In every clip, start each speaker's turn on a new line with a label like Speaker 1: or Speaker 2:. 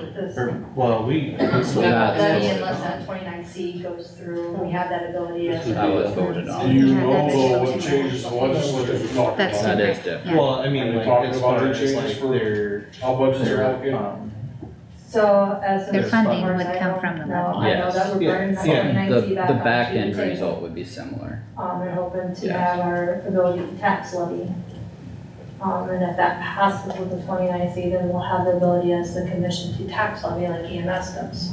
Speaker 1: this.
Speaker 2: Or, well, we,
Speaker 3: So
Speaker 4: Yeah,
Speaker 3: that's
Speaker 1: Levy
Speaker 4: voted
Speaker 1: unless
Speaker 3: on.
Speaker 1: that twenty-nine C goes through, we have that ability
Speaker 2: This would
Speaker 1: to.
Speaker 2: be-
Speaker 3: That was voted
Speaker 5: Do
Speaker 3: on.
Speaker 5: you
Speaker 4: Yeah,
Speaker 5: know
Speaker 4: that's
Speaker 5: though what
Speaker 4: different.
Speaker 5: changes the legislature talked
Speaker 4: That's
Speaker 5: about?
Speaker 3: That is different.
Speaker 4: Yeah.
Speaker 2: well, I mean,
Speaker 5: And
Speaker 2: like,
Speaker 5: talking
Speaker 2: as
Speaker 5: about
Speaker 2: far
Speaker 5: the
Speaker 2: as
Speaker 5: changes
Speaker 2: like
Speaker 5: for-
Speaker 2: their,
Speaker 5: How budgets are
Speaker 2: their,
Speaker 5: allocated?
Speaker 2: um,
Speaker 1: So as.
Speaker 4: Their
Speaker 1: a-
Speaker 4: funding
Speaker 1: as
Speaker 4: would
Speaker 1: I
Speaker 4: come
Speaker 1: know-
Speaker 4: from the
Speaker 1: No,
Speaker 4: levy.
Speaker 1: I know that we're
Speaker 2: Yes.
Speaker 1: bringing that
Speaker 2: Yeah.
Speaker 3: The,
Speaker 1: 29C back
Speaker 3: the
Speaker 1: up
Speaker 3: back
Speaker 1: to
Speaker 3: end
Speaker 1: the table.
Speaker 3: result would be similar.
Speaker 1: Um, and hoping to
Speaker 3: Yeah.
Speaker 1: have our ability to tax levy. Um, and if that passes with the twenty-nine C, then we'll have the ability as the commission to tax levy like EMS does.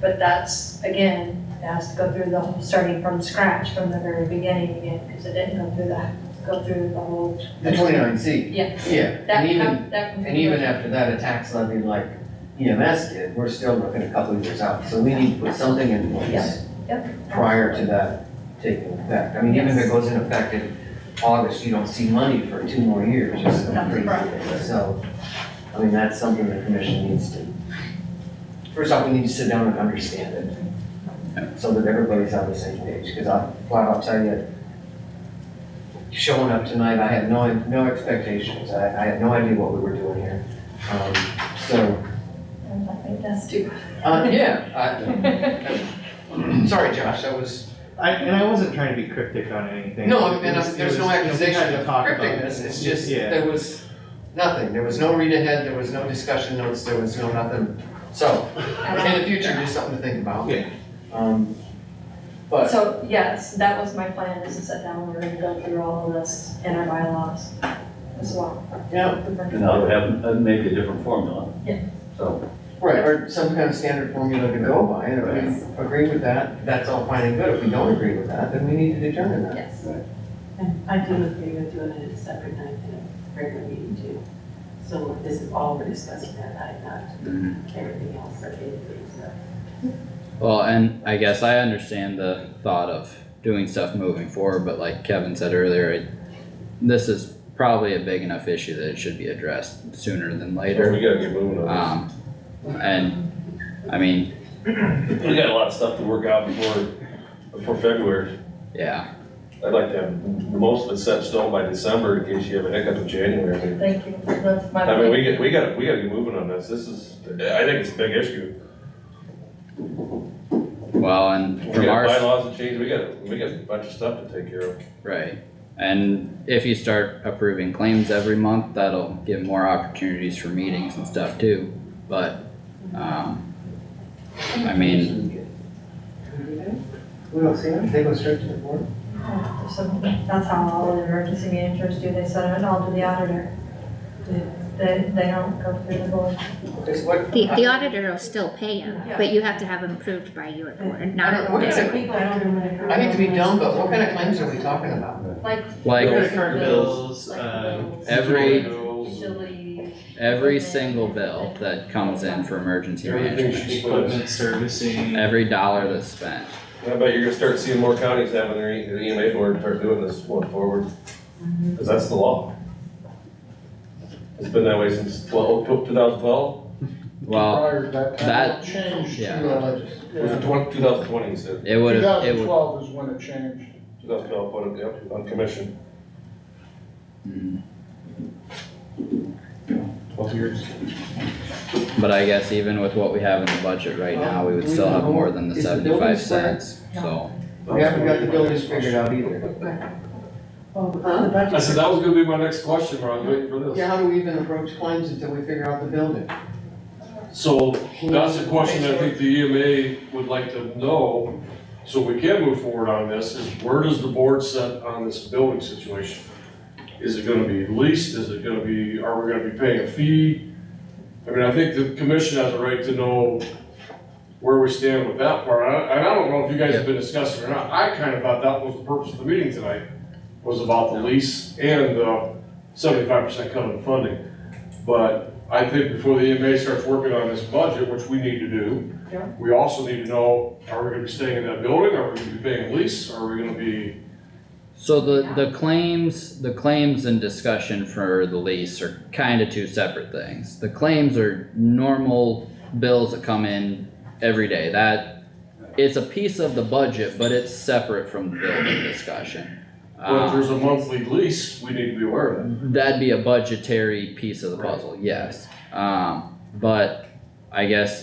Speaker 1: But that's, again, it has to go through the, whole- starting from scratch from the very beginning again, because it didn't go through the, go through the whole,
Speaker 6: The twenty-nine C,
Speaker 1: yeah.
Speaker 6: yeah,
Speaker 1: That,
Speaker 6: and even,
Speaker 1: com- that.
Speaker 6: and even after that, a tax levy like EMS did, we're still looking a couple of years out, so we need to put something in place
Speaker 1: Yep.
Speaker 6: prior to that taking effect, I mean, even if it goes in effect in August, you don't see money for two more years, just
Speaker 1: That's right.
Speaker 6: so, I mean, that's something the commission needs to, first off, we need to sit down and understand it, so that everybody's on the same page, because I, flat out tell you, showing up tonight, I had no, no expectations, I, I had no idea what we were doing here. Um, so,
Speaker 1: I think that's too.
Speaker 6: uh, yeah, I, sorry, Josh, that was,
Speaker 7: I, and I wasn't trying to be cryptic on anything.
Speaker 6: no,
Speaker 7: It
Speaker 6: and
Speaker 7: was-
Speaker 6: I'm-
Speaker 7: it
Speaker 6: there's
Speaker 7: was-
Speaker 6: no
Speaker 7: you know, we
Speaker 6: accusation
Speaker 7: had to
Speaker 6: of
Speaker 7: talk about
Speaker 6: crypticness,
Speaker 7: it.
Speaker 6: it's just,
Speaker 7: Yeah.
Speaker 6: there was nothing, there was no read ahead, there was no discussion notes, there was no nothing. So, in the future, just something to think about.
Speaker 2: Yeah.
Speaker 6: Um, but.
Speaker 1: So, yes, that was my plan, is to sit down, we're gonna go through all of this in our bylaws as well.
Speaker 6: Yeah.
Speaker 8: Now, would have, uh, maybe a different formula.
Speaker 1: Yeah.
Speaker 8: So,
Speaker 6: Right, or some kind of standard formula to go by, and if we agree with that, that's all fine and good, if we don't agree with that, then we need to determine that.
Speaker 1: Yes.
Speaker 9: And I do agree with doing it a separate night than a regular meeting too. So this is all we're discussing that night,
Speaker 6: Mm-hmm.
Speaker 9: not everything else that they do, so.
Speaker 3: Well, and I guess I understand the thought of doing stuff moving forward, but like Kevin said earlier, it, this is probably a big enough issue that it should be addressed sooner than later.
Speaker 5: We gotta get moving on
Speaker 3: Um, and, I mean,
Speaker 8: we got a lot of stuff to work out before, before February.
Speaker 3: yeah,
Speaker 5: this. I'd like to have most of it set in stone by December in case you have a hiccup in January. I mean,
Speaker 1: Thank you, that's my.
Speaker 5: I mean, we get, we gotta, we gotta get moving on this. This is, I think it's a big issue.
Speaker 3: well, and
Speaker 5: We
Speaker 3: from
Speaker 5: got
Speaker 3: our.
Speaker 5: bylaws to change, we got, we got a bunch of stuff to take care of.
Speaker 3: Right, and if you start approving claims every month, that'll give more opportunities for meetings and stuff too, but, um. I mean,
Speaker 6: We don't see them, they go straight to the board.
Speaker 1: Yeah, so That's how all the emergency managers do, they send it all to the auditor. They, they don't go through the board.
Speaker 6: Is what?
Speaker 4: The, the auditor will still pay him, but you have to have him approved by your board,
Speaker 6: I
Speaker 4: not
Speaker 6: don't- what kind of-
Speaker 9: People don't do it.
Speaker 6: I hate to be dumb, but what kind of claims are we talking about?
Speaker 1: Like
Speaker 3: like,
Speaker 7: Credit card bills, uh.
Speaker 3: Every-
Speaker 7: utility bills,
Speaker 1: Usually,
Speaker 3: every single bill that comes in for emergency
Speaker 5: Everything
Speaker 3: management,
Speaker 5: she's put in.
Speaker 2: equipment servicing.
Speaker 3: every dollar that's spent.
Speaker 5: I bet you're gonna start seeing more counties having their E- their EMA board start doing this going forward, because that's the law. It's been that way since twelve, two thousand twelve,
Speaker 3: Well,
Speaker 10: prior to that time,
Speaker 3: that-
Speaker 10: it changed
Speaker 3: yeah.
Speaker 10: to, uh, just-
Speaker 5: was it
Speaker 10: yeah.
Speaker 5: two thousand twenty, you said?
Speaker 3: it would have, it would,
Speaker 10: 2012 is when it changed.
Speaker 5: Two thousand twelve, put it, yep, on commission.
Speaker 3: Mhm.
Speaker 5: Twelve years.
Speaker 3: but I guess even with what we have in the budget right now, we would still have more than the
Speaker 6: Um, Is the building
Speaker 3: seventy-five
Speaker 6: square?
Speaker 3: cents, so.
Speaker 6: We haven't got the buildings figured out either.
Speaker 9: Well, the
Speaker 5: I said,
Speaker 9: budget,
Speaker 5: that was gonna be my next question, Ron, waiting for
Speaker 6: Yeah,
Speaker 5: this.
Speaker 6: how do we even approach claims until we figure out the building?
Speaker 11: So that's a question I think the EMA would like to know, so we can move forward on this, is where does the board set on this building situation? Is it gonna be leased, is it gonna be, are we gonna be paying a fee? I mean, I think the commission has a right to know where we stand with that part, and I, and I don't know if you guys have been discussing or not, I kinda thought that was the purpose of the meeting tonight, was about the lease and the seventy-five percent cut in funding. But I think before the EMA starts working on this budget, which we need to do,
Speaker 1: Yeah.
Speaker 11: we also need to know, are we gonna be staying in that building, are we gonna be paying a lease, are we gonna be,
Speaker 3: So the, the claims, the claims and discussion for the lease are kinda two separate things. The claims are normal bills that come in every day, that, it's a piece of the budget, but it's separate from the building discussion.
Speaker 11: well, if
Speaker 3: Um,
Speaker 11: there's a monthly lease, we need to be aware of that.
Speaker 3: That'd be a budgetary piece of the puzzle, yes. Um, but I guess